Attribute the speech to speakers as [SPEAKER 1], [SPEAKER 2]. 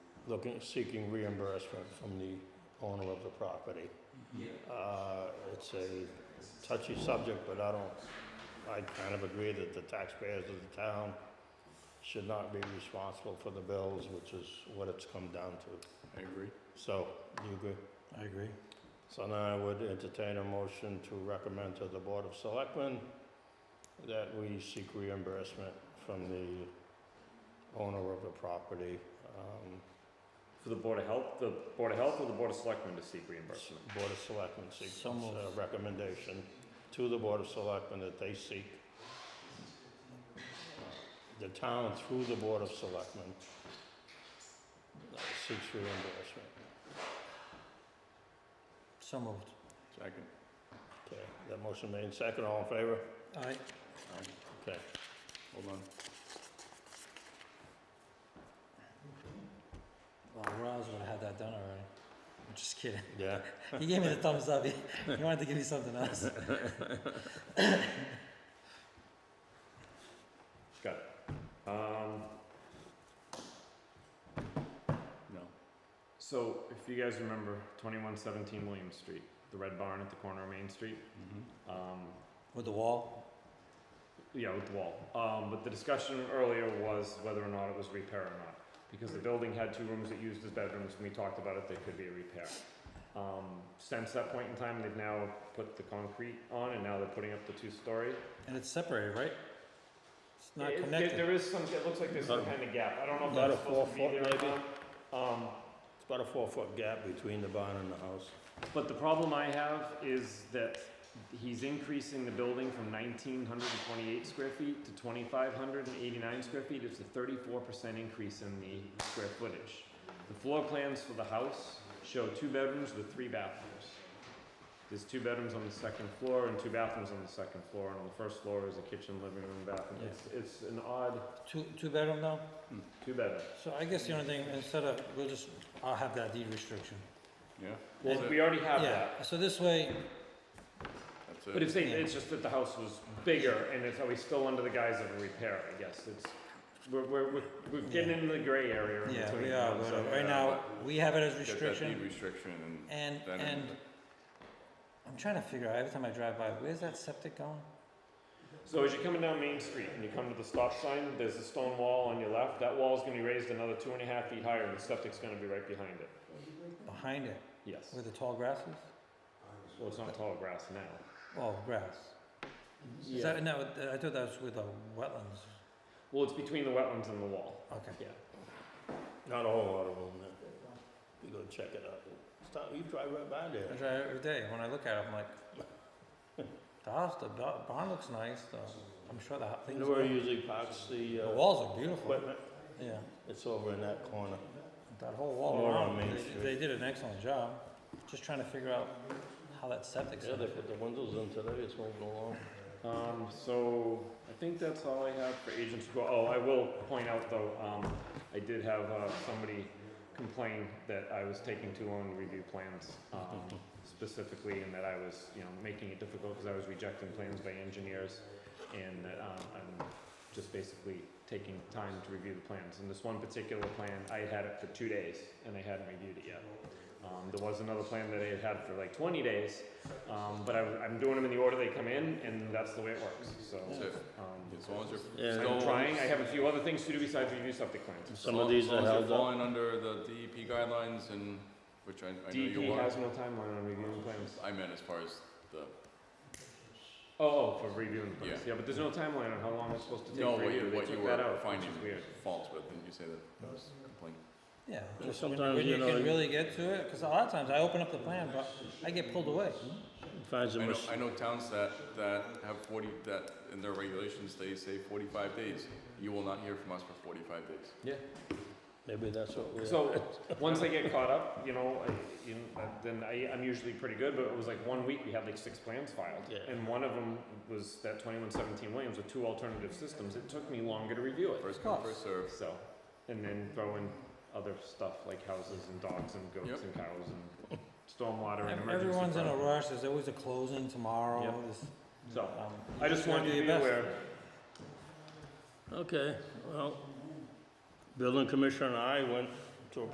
[SPEAKER 1] looking, seeking reimbursement from the owner of the property. Uh, It's a touchy subject, but I don't, I kind of agree that the taxpayers of the town should not be responsible for the bills, which is what it's come down to.
[SPEAKER 2] I agree.
[SPEAKER 1] So, you agree?
[SPEAKER 2] I agree.
[SPEAKER 1] So now I would entertain a motion to recommend to the Board of Selectmen that we seek reimbursement from the owner of the property, um,
[SPEAKER 3] For the Board of Health, the Board of Health or the Board of Selectmen to seek reimbursement?
[SPEAKER 1] Board of Selectmen seeks
[SPEAKER 2] So moved.
[SPEAKER 1] a recommendation to the Board of Selectmen that they seek uh, the town through the Board of Selectmen uh, seeks reimbursement.
[SPEAKER 2] So moved.
[SPEAKER 3] Second.
[SPEAKER 1] Okay, that motion made second, all in favor?
[SPEAKER 2] Aye.
[SPEAKER 1] Okay.
[SPEAKER 3] Hold on.
[SPEAKER 2] Well, Roz would have had that done already. I'm just kidding.
[SPEAKER 1] Yeah,
[SPEAKER 2] He gave me the thumbs up. He, he wanted to give me something else.
[SPEAKER 3] Got it. Um. No. So if you guys remember twenty-one seventeen William Street, the red barn at the corner of Main Street, um,
[SPEAKER 2] With the wall?
[SPEAKER 3] yeah, with the wall. Um, but the discussion earlier was whether or not it was repair or not. Because the building had two rooms that used as bedrooms, and we talked about it, there could be a repair. Um, since that point in time, they've now put the concrete on, and now they're putting up the two-story.
[SPEAKER 2] And it's separated, right? It's not
[SPEAKER 3] It- it-
[SPEAKER 2] connected.
[SPEAKER 3] There is some, it looks like there's some
[SPEAKER 1] Not-
[SPEAKER 3] kind of gap. I don't know if
[SPEAKER 1] not
[SPEAKER 3] that's
[SPEAKER 1] a
[SPEAKER 3] supposed to be
[SPEAKER 1] four
[SPEAKER 3] there
[SPEAKER 1] foot
[SPEAKER 3] or
[SPEAKER 1] maybe?
[SPEAKER 3] not. Um,
[SPEAKER 1] it's about a four-foot gap between the barn and the house.
[SPEAKER 3] but the problem I have is that he's increasing the building from nineteen hundred and twenty-eight square feet to twenty-five hundred and eighty-nine square feet. It's a thirty-four percent increase in the square footage. The floor plans for the house show two bedrooms with three bathrooms. There's two bedrooms on the second floor and two bathrooms on the second floor, and on the first floor is a kitchen, living room, bathroom.
[SPEAKER 2] Yeah.
[SPEAKER 3] It's, it's an odd
[SPEAKER 2] Two, two bedroom now?
[SPEAKER 3] two-bedroom.
[SPEAKER 2] So I guess the only thing, instead of, we'll just, I'll have that deed restriction.
[SPEAKER 4] Yeah,
[SPEAKER 3] Well, we already have
[SPEAKER 2] Yeah,
[SPEAKER 3] that.
[SPEAKER 2] so this way,
[SPEAKER 4] that's
[SPEAKER 3] But
[SPEAKER 4] it.
[SPEAKER 3] if they,
[SPEAKER 2] Yeah.
[SPEAKER 3] it's just that the house was bigger and it's always still under the guise of a repair, I guess, it's, we're, we're, we're- we're getting in the gray area in
[SPEAKER 2] yeah,
[SPEAKER 3] between.
[SPEAKER 2] we are,
[SPEAKER 3] now, so-
[SPEAKER 2] but right now, we have it as
[SPEAKER 4] Get that deed
[SPEAKER 2] restriction
[SPEAKER 4] restriction
[SPEAKER 2] and,
[SPEAKER 4] and then.
[SPEAKER 2] and I'm trying to figure out, every time I drive by, where's that septic going?
[SPEAKER 3] So as you're coming down Main Street and you come to the stop sign, there's a stone wall on your left, that wall's gonna be raised another two and a half feet higher and the septic's gonna be right behind it.
[SPEAKER 2] Behind it,
[SPEAKER 3] Yes,
[SPEAKER 2] where the tall grass is?
[SPEAKER 3] well, it's not tall grass now.
[SPEAKER 2] Oh, grass. Is that, no, I thought that was with the wetlands.
[SPEAKER 3] Well, it's between the wetlands and the wall,
[SPEAKER 2] Okay.
[SPEAKER 3] yeah.
[SPEAKER 1] Not a whole lot of room there. You go check it out. Stop, you drive right by
[SPEAKER 2] I
[SPEAKER 1] there.
[SPEAKER 2] drive it every day. When I look at it, I'm like, the house, the ba- barn looks nice. The, I'm sure the ho-
[SPEAKER 1] You
[SPEAKER 2] things.
[SPEAKER 1] know where he usually parks the,
[SPEAKER 2] the
[SPEAKER 1] uh,
[SPEAKER 2] walls are beautiful.
[SPEAKER 1] equipment?
[SPEAKER 2] Yeah,
[SPEAKER 1] It's over in that corner.
[SPEAKER 2] that whole wall
[SPEAKER 1] More on
[SPEAKER 2] around.
[SPEAKER 1] Main Street.
[SPEAKER 2] They, they did an excellent job. Just trying to figure out how that septic's.
[SPEAKER 1] Yeah,
[SPEAKER 2] gonna
[SPEAKER 1] they
[SPEAKER 2] fit.
[SPEAKER 1] put the windows in today, it's moving along.
[SPEAKER 3] Um, so, I think that's all I have for agents report. Oh, I will point out though, um, I did have, uh, somebody complain that I was taking too long to review plans, um, specifically, and that I was, you know, making it difficult because I was rejecting plans by engineers, and that, um, I'm just basically taking time to review the plans. And this one particular plan, I had it for two days, and I hadn't reviewed it yet. Um, there was another plan that I had had for like twenty days, um, but I, I'm doing them in the order they come in, and that's the way it works, so.
[SPEAKER 4] That's it. As
[SPEAKER 3] Um,
[SPEAKER 4] long as you're.
[SPEAKER 1] Yeah,
[SPEAKER 4] still-
[SPEAKER 3] I'm trying, I have a few other things to do besides review septic plans.
[SPEAKER 1] Some
[SPEAKER 4] as
[SPEAKER 1] of
[SPEAKER 4] long-
[SPEAKER 1] these
[SPEAKER 4] as
[SPEAKER 1] are
[SPEAKER 4] long as you're
[SPEAKER 1] held up.
[SPEAKER 4] Falling under the DEP guidelines and, which I, I know you
[SPEAKER 3] DEP
[SPEAKER 4] are.
[SPEAKER 3] E has no timeline on reviewing plans.
[SPEAKER 4] I meant as far as the,
[SPEAKER 3] Oh, oh, for reviewing plans, yeah, but there's no timeline on how long it's supposed to take
[SPEAKER 4] no,
[SPEAKER 3] for
[SPEAKER 4] what you,
[SPEAKER 3] review, they
[SPEAKER 4] what you
[SPEAKER 3] took that
[SPEAKER 4] were
[SPEAKER 3] out, which
[SPEAKER 4] finding
[SPEAKER 3] is weird.
[SPEAKER 4] faults with, and you say that that was complaint.
[SPEAKER 2] Yeah,
[SPEAKER 1] Yeah,
[SPEAKER 2] just when,
[SPEAKER 1] sometimes,
[SPEAKER 2] when
[SPEAKER 1] you
[SPEAKER 2] you
[SPEAKER 1] know,
[SPEAKER 2] can
[SPEAKER 1] you-
[SPEAKER 2] really get to it, because a lot of times I open up the plan, but I get pulled away.
[SPEAKER 1] Finds a
[SPEAKER 4] I know,
[SPEAKER 1] mis-
[SPEAKER 4] I know towns that, that have forty, that in their regulations, they say forty-five days. You will not hear from us for forty-five days.
[SPEAKER 3] Yeah.
[SPEAKER 1] maybe that's what we.
[SPEAKER 3] So, once I get caught up, you know, I, you know, then I, I'm usually pretty good, but it was like one week, we had like six plans filed.
[SPEAKER 1] Yeah.
[SPEAKER 3] And one of them was that twenty-one seventeen Williams with two alternative systems, it took me longer to review it,
[SPEAKER 4] First come,
[SPEAKER 2] course.
[SPEAKER 4] first served.
[SPEAKER 3] so. And then throw in other stuff like houses and dogs and goats
[SPEAKER 4] Yep.
[SPEAKER 3] and cows and stormwater and
[SPEAKER 2] Ev-
[SPEAKER 3] emergency.
[SPEAKER 2] Everyone's in a
[SPEAKER 3] fund.
[SPEAKER 2] rush. There's always a closing tomorrow.
[SPEAKER 3] Yep.
[SPEAKER 2] There's,
[SPEAKER 3] So,
[SPEAKER 2] um, you
[SPEAKER 3] I just
[SPEAKER 2] gotta
[SPEAKER 3] wanted
[SPEAKER 2] do
[SPEAKER 3] to
[SPEAKER 2] your
[SPEAKER 3] be
[SPEAKER 2] best.
[SPEAKER 3] aware.
[SPEAKER 1] Okay, well, building commissioner and I went